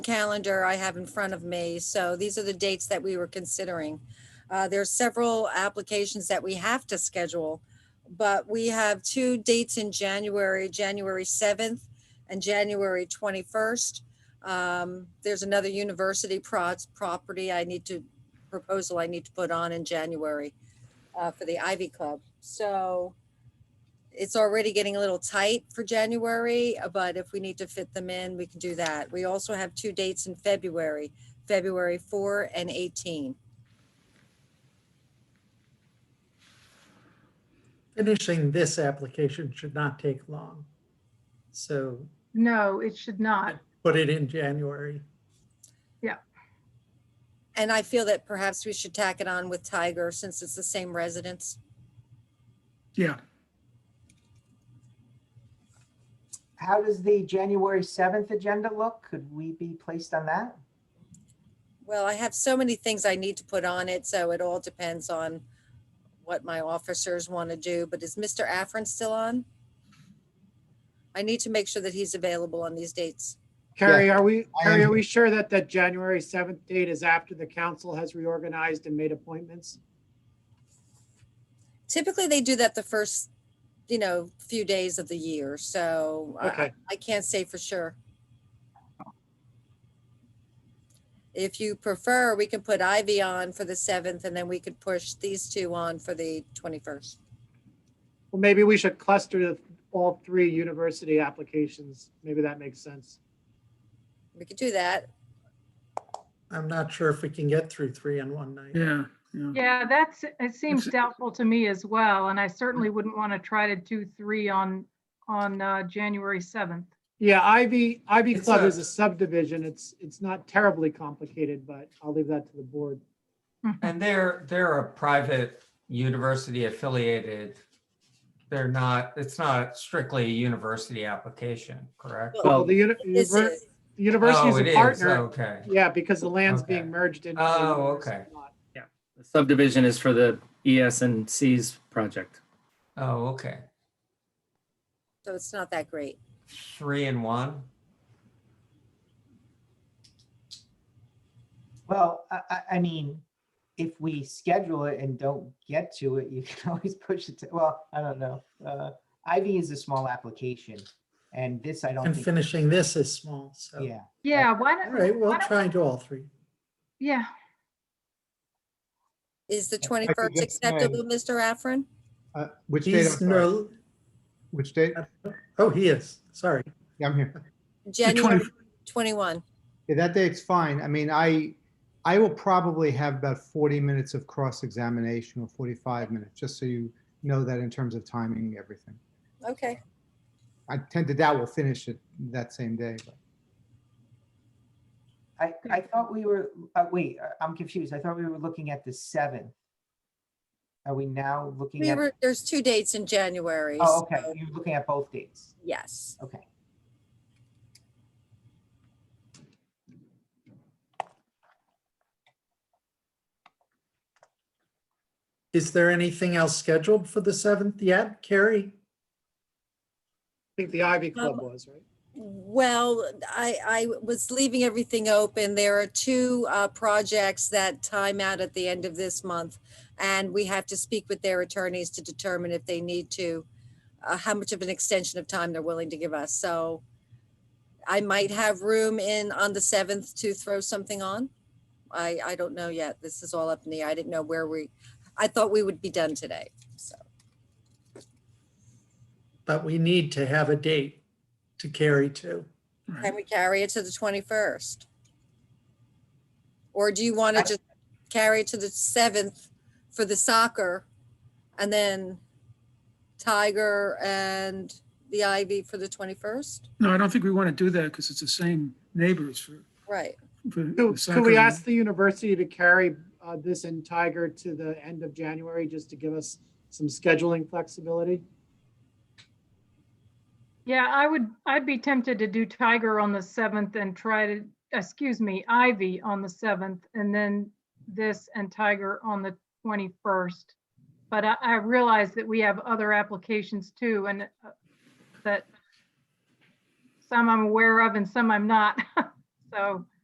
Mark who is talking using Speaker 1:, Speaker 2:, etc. Speaker 1: calendar I have in front of me. So these are the dates that we were considering. Uh, There are several applications that we have to schedule, but we have two dates in January, January 7th and January 21st. Um, There's another university pro- property I need to, proposal I need to put on in January uh, for the Ivy Club. So it's already getting a little tight for January, uh, but if we need to fit them in, we can do that. We also have two dates in February, February 4 and 18.
Speaker 2: Finishing this application should not take long. So
Speaker 3: No, it should not.
Speaker 2: put it in January.
Speaker 1: And I feel that perhaps we should tack it on with Tiger since it's the same residence.
Speaker 4: Yeah,
Speaker 5: How does the January 7th agenda look? Could we be placed on that?
Speaker 1: Well, I have so many things I need to put on it, so it all depends on what my officers want to do. But is Mr. Afrin still on? I need to make sure that he's available on these dates.
Speaker 6: Carrie, are we,
Speaker 5: I
Speaker 6: Carrie,
Speaker 5: am-
Speaker 7: Um,
Speaker 6: are we sure that that January 7th date is after the council has reorganized and made appointments?
Speaker 1: Typically, they do that the first, you know, few days of the year, so I-
Speaker 6: Okay.
Speaker 1: I can't say for sure. If you prefer, we can put Ivy on for the 7th, and then we could push these two on for the 21st.
Speaker 6: Well, maybe we should cluster the- all three university applications. Maybe that makes sense.
Speaker 1: We could do that.
Speaker 2: I'm not sure if we can get through three in one night.
Speaker 4: yeah, yeah.
Speaker 3: Yeah, that's, it seems
Speaker 4: It's-
Speaker 3: doubtful to me as well, and I certainly
Speaker 2: Mm.
Speaker 3: wouldn't want to try to do three on, on uh, January 7th.
Speaker 6: Yeah, Ivy, Ivy
Speaker 2: It's
Speaker 6: Club
Speaker 2: a-
Speaker 6: is a subdivision. It's, it's not terribly complicated, but I'll leave that to the board.
Speaker 7: And they're, they're a private university affiliated. They're not, it's not strictly a university application, correct?
Speaker 1: Well,
Speaker 6: Well, the uni-
Speaker 1: This
Speaker 6: univer-
Speaker 1: is-
Speaker 6: the university
Speaker 7: Oh,
Speaker 6: is
Speaker 7: it
Speaker 6: a
Speaker 7: is,
Speaker 6: partner.
Speaker 7: Okay,
Speaker 6: Yeah, because the land's
Speaker 7: Okay.
Speaker 6: being merged into.
Speaker 7: Oh,
Speaker 6: the university
Speaker 7: okay.
Speaker 6: lot.
Speaker 8: The subdivision is for the ES and C's project.
Speaker 7: oh, okay.
Speaker 1: So it's not that great.
Speaker 7: Three and one?
Speaker 5: Well, I, I, I mean, if we schedule it and don't get to it, you can always push it to, well, I don't know. Uh, Ivy is a small application and this I don't
Speaker 2: And
Speaker 5: think,
Speaker 2: finishing this is small, so.
Speaker 5: yeah.
Speaker 3: Yeah, why
Speaker 2: All
Speaker 3: don't,
Speaker 2: right, we'll
Speaker 3: Why don't-
Speaker 2: try and do all three.
Speaker 3: yeah,
Speaker 1: Is the
Speaker 9: I could
Speaker 1: 21st
Speaker 9: just
Speaker 1: acceptable, Mr. Afrin?
Speaker 9: Uh, Which date, I'm
Speaker 2: He's
Speaker 9: sorry,
Speaker 2: no,
Speaker 9: which date?
Speaker 2: oh, he is, sorry.
Speaker 9: Yeah, I'm here.
Speaker 4: The
Speaker 1: January 21.
Speaker 9: Yeah, that date's fine. I mean, I, I will probably have about 40 minutes of cross-examination or 45 minutes, just so you know that in terms of timing and everything.
Speaker 1: Okay.
Speaker 9: I tend to doubt we'll finish it that same day, but
Speaker 5: I, I thought we were, uh, wait, I- I'm confused. I thought we were looking at the 7th. Are we now looking
Speaker 1: We
Speaker 5: at,
Speaker 1: were, there's two dates in January.
Speaker 5: oh, okay,
Speaker 1: so
Speaker 5: you're looking at both dates.
Speaker 1: Yes.
Speaker 5: Okay.
Speaker 2: Is there anything else scheduled for the 7th yet, Carrie?
Speaker 6: I think the Ivy Club
Speaker 1: Um,
Speaker 6: was, right?
Speaker 1: Well, I, I was leaving everything open. There are two uh, projects that time out at the end of this month. And we have to speak with their attorneys to determine if they need to, uh, how much of an extension of time they're willing to give us. So I might have room in on the 7th to throw something on. I, I don't know yet. This is all up in the, air. I didn't know where we, I thought we would be done today. So,
Speaker 2: But we need to have a date to carry to.
Speaker 1: can we carry it to the 21st? Or do you want to
Speaker 5: I-
Speaker 1: just carry it to the 7th for the soccer? And then Tiger and the Ivy for the 21st?
Speaker 4: No, I don't think we want to do that because it's the same neighbors for,
Speaker 1: Right.
Speaker 4: for.
Speaker 6: Could
Speaker 4: the
Speaker 6: could we
Speaker 4: soccer.
Speaker 6: ask the university to carry uh, this and Tiger to the end of January, just to give us some scheduling flexibility?
Speaker 3: yeah, I would, I'd be tempted to do Tiger on the 7th and try to, excuse me, Ivy on the 7th, and then this and Tiger on the 21st. But I, I realize that we have other applications too, and uh, that some I'm aware of and some I'm not. So